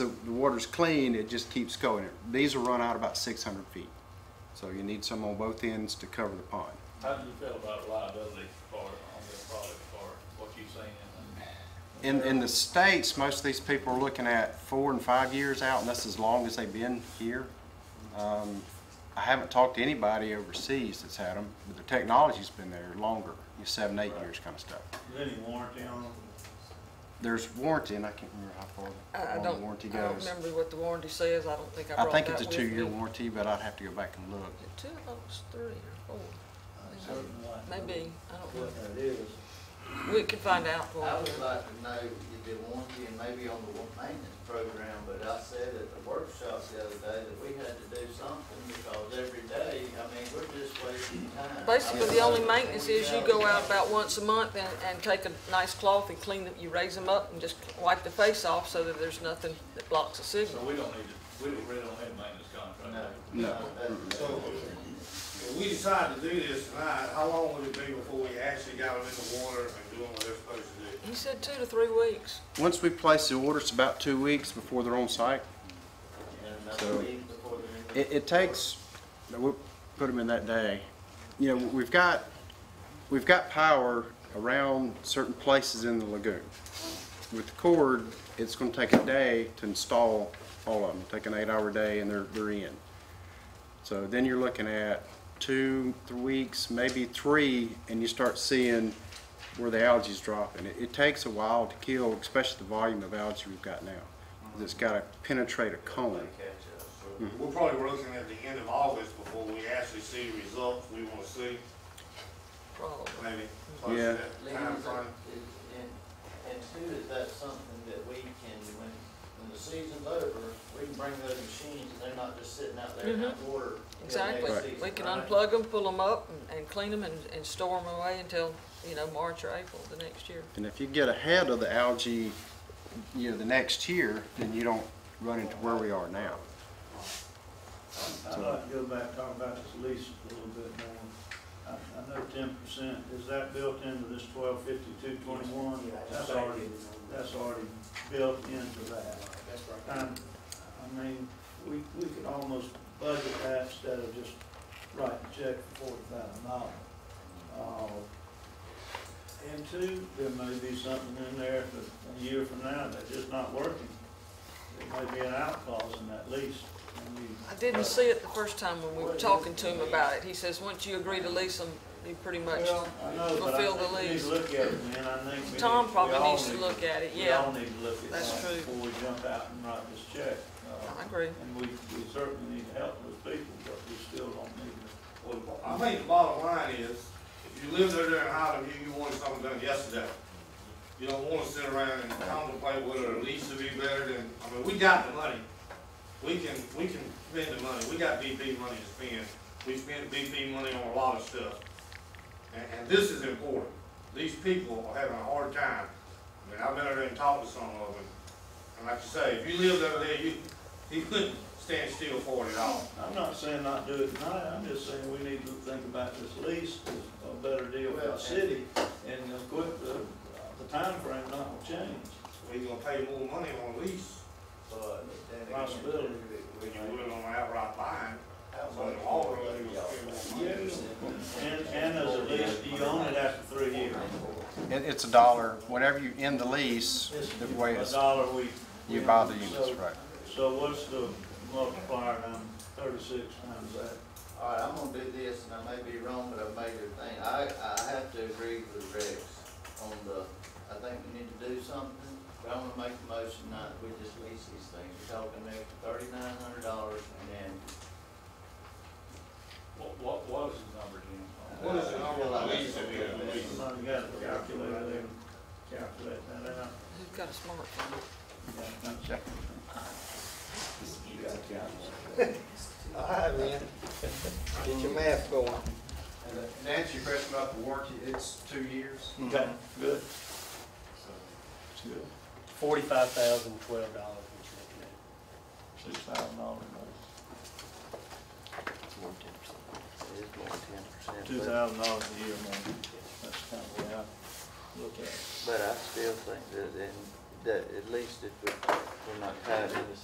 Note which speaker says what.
Speaker 1: the water's clean, it just keeps going. It- These will run out about six hundred feet. So you need some on both ends to cover the pond.
Speaker 2: How do you feel about liability for, on this product for what you've seen in
Speaker 1: In, in the States, most of these people are looking at four and five years out, and that's as long as they've been here. Um, I haven't talked to anybody overseas that's had them, but the technology's been there longer, you know, seven, eight years kind of stuff.
Speaker 3: Is there any warranty on them?
Speaker 1: There's warranty, and I can't remember how far
Speaker 4: I I
Speaker 1: long the
Speaker 4: don't,
Speaker 1: warranty
Speaker 4: I don't
Speaker 1: goes.
Speaker 4: remember what the warranty says, I don't think I
Speaker 1: I
Speaker 4: brought that
Speaker 1: think
Speaker 4: with
Speaker 1: it's a
Speaker 4: me.
Speaker 1: two-year warranty, but I'd have to go back and look.
Speaker 4: Two, I thought it was three or four,
Speaker 5: Certain one.
Speaker 4: maybe, I don't know.
Speaker 3: What that is.
Speaker 4: We could find out for
Speaker 5: I
Speaker 4: you.
Speaker 5: would like to know if it warranty and maybe on the wa- maintenance program, but I said at the workshop the other day that we had to do something because every day, I mean, we're just wasting time.
Speaker 4: Basically, the only maintenance is you go out
Speaker 5: back.
Speaker 4: about once a month and, and take a nice cloth and clean them, you raise them up and just wipe the face off so that there's nothing that blocks the
Speaker 2: it? So
Speaker 4: signal.
Speaker 2: we don't need to, we don't really don't have maintenance contract.
Speaker 5: No,
Speaker 1: No.
Speaker 5: no, that's,
Speaker 3: So, if we decide to do this tonight, how long would it be before we actually got them in the water and doing what they're supposed to do?
Speaker 4: He said two to three weeks.
Speaker 1: Once we place the order, it's about two weeks before they're on site.
Speaker 5: and that's
Speaker 1: So-
Speaker 5: even before the.
Speaker 1: It, it takes, we'll put them in that day. You know, we've got, we've got power around certain places in the lagoon. With cord, it's gonna take a day to install all of them, take an eight-hour day and they're, they're in. So then you're looking at two, three weeks, maybe three, and you start seeing where the algae's dropping. It, it takes a while to kill, especially the volume of algae we've got now. It's gotta penetrate a cone.
Speaker 5: Catch up, so-
Speaker 3: We're probably looking at the end of August before we actually see the results we wanna see,
Speaker 4: Probably.
Speaker 3: maybe. close to
Speaker 1: Yeah.
Speaker 3: that
Speaker 5: Leave it
Speaker 3: timeframe.
Speaker 5: up- is- And, and two, is that something that we can, when, when the season's over, we can bring those machines, and they're not just sitting out there in that water. till next
Speaker 4: Mm-hmm. Exactly.
Speaker 5: season,
Speaker 4: We can
Speaker 5: right?
Speaker 4: unplug them, pull them up and, and clean them and, and store them away until, you know, March or April the next year.
Speaker 1: And if you get ahead of the algae, you know, the next year, then you don't run into where we are now.
Speaker 6: I'd like to go back, talk about this lease a little bit more. I, I know ten percent, is that built into this twelve fifty-two twenty-one? That's already, that's already built into that. That's right. And, I mean, we, we could almost budget that instead of just writing a check for forty thousand dollars. And two, there may be something in there that a year from now that's just not working. There may be an out clause in that lease. and we-
Speaker 4: I didn't see it the first time when we were talking to him about it. He says, once you agree to lease them, you pretty much,
Speaker 6: Well, I know, but I
Speaker 4: fulfill the
Speaker 6: think we need
Speaker 4: lease.
Speaker 6: to look at it, man, I think we.
Speaker 4: Tom
Speaker 6: need-
Speaker 4: probably
Speaker 6: we all
Speaker 4: needs to
Speaker 6: need-
Speaker 4: look at it,
Speaker 6: We all
Speaker 4: yeah.
Speaker 6: need to look at
Speaker 4: That's
Speaker 6: that
Speaker 4: true.
Speaker 6: before we jump out and write this check. Uh,
Speaker 4: I agree.
Speaker 6: And we, we certainly need to help those people, but we still don't need to.
Speaker 3: Well, I think the bottom line is, if you live there during Highland View, you wanted something done yesterday. You don't wanna sit around and contemplate whether a lease would be better than, I mean, we got the money. We can, we can spend the money, we got BP money to spend, we spend BP money on a lot of stuff. And, and this is important, these people are having a hard time. I mean, I've been over there and talked to some of them, and like you say, if you lived over there, you, you couldn't stand still for it at all.
Speaker 6: I'm not saying not do it tonight, I'm just saying we need to think about this lease, as a better deal for
Speaker 5: Well,
Speaker 6: the
Speaker 5: and-
Speaker 6: city, and uh, quit the, the timeframe not will change.
Speaker 3: We're gonna pay more money on a lease
Speaker 5: But then again,
Speaker 6: Possibility.
Speaker 5: we-
Speaker 3: than you would on outright buying.
Speaker 5: how
Speaker 3: So in
Speaker 5: much
Speaker 3: the long
Speaker 5: more
Speaker 3: run,
Speaker 5: do
Speaker 3: you're
Speaker 5: y'all
Speaker 3: gonna spend more money.
Speaker 5: want?
Speaker 6: And, and as a lease, you own it after three years.
Speaker 1: It, it's a dollar, whatever you end the lease, the way
Speaker 6: A
Speaker 1: it's,
Speaker 6: dollar a week.
Speaker 1: you buy the
Speaker 6: So-
Speaker 1: units, right?
Speaker 6: So what's the multiplier on thirty-six times that?
Speaker 5: All right, I'm gonna do this, and I may be wrong, but I made a thing, I, I have to agree with Rex on the, I think we need to do something, but I'm gonna make a motion not, we just lease these things, we're talking next thirty-nine hundred dollars, and then
Speaker 2: What, what was the number again?
Speaker 3: What is the number on the lease that we have to lease?
Speaker 6: Somebody got a calculator there, calculate that out.
Speaker 4: He's got a smartphone.
Speaker 7: All right, man. Get your math going.
Speaker 1: And to answer your question about the warranty, it's two years.
Speaker 6: Okay, good.
Speaker 8: forty-five thousand twelve dollars, what you're looking at.
Speaker 6: Six thousand dollars more. Two thousand dollars a year more. That's kind of the way I look at it.
Speaker 5: But I still think that, in- that at least if we're, we're not tied to the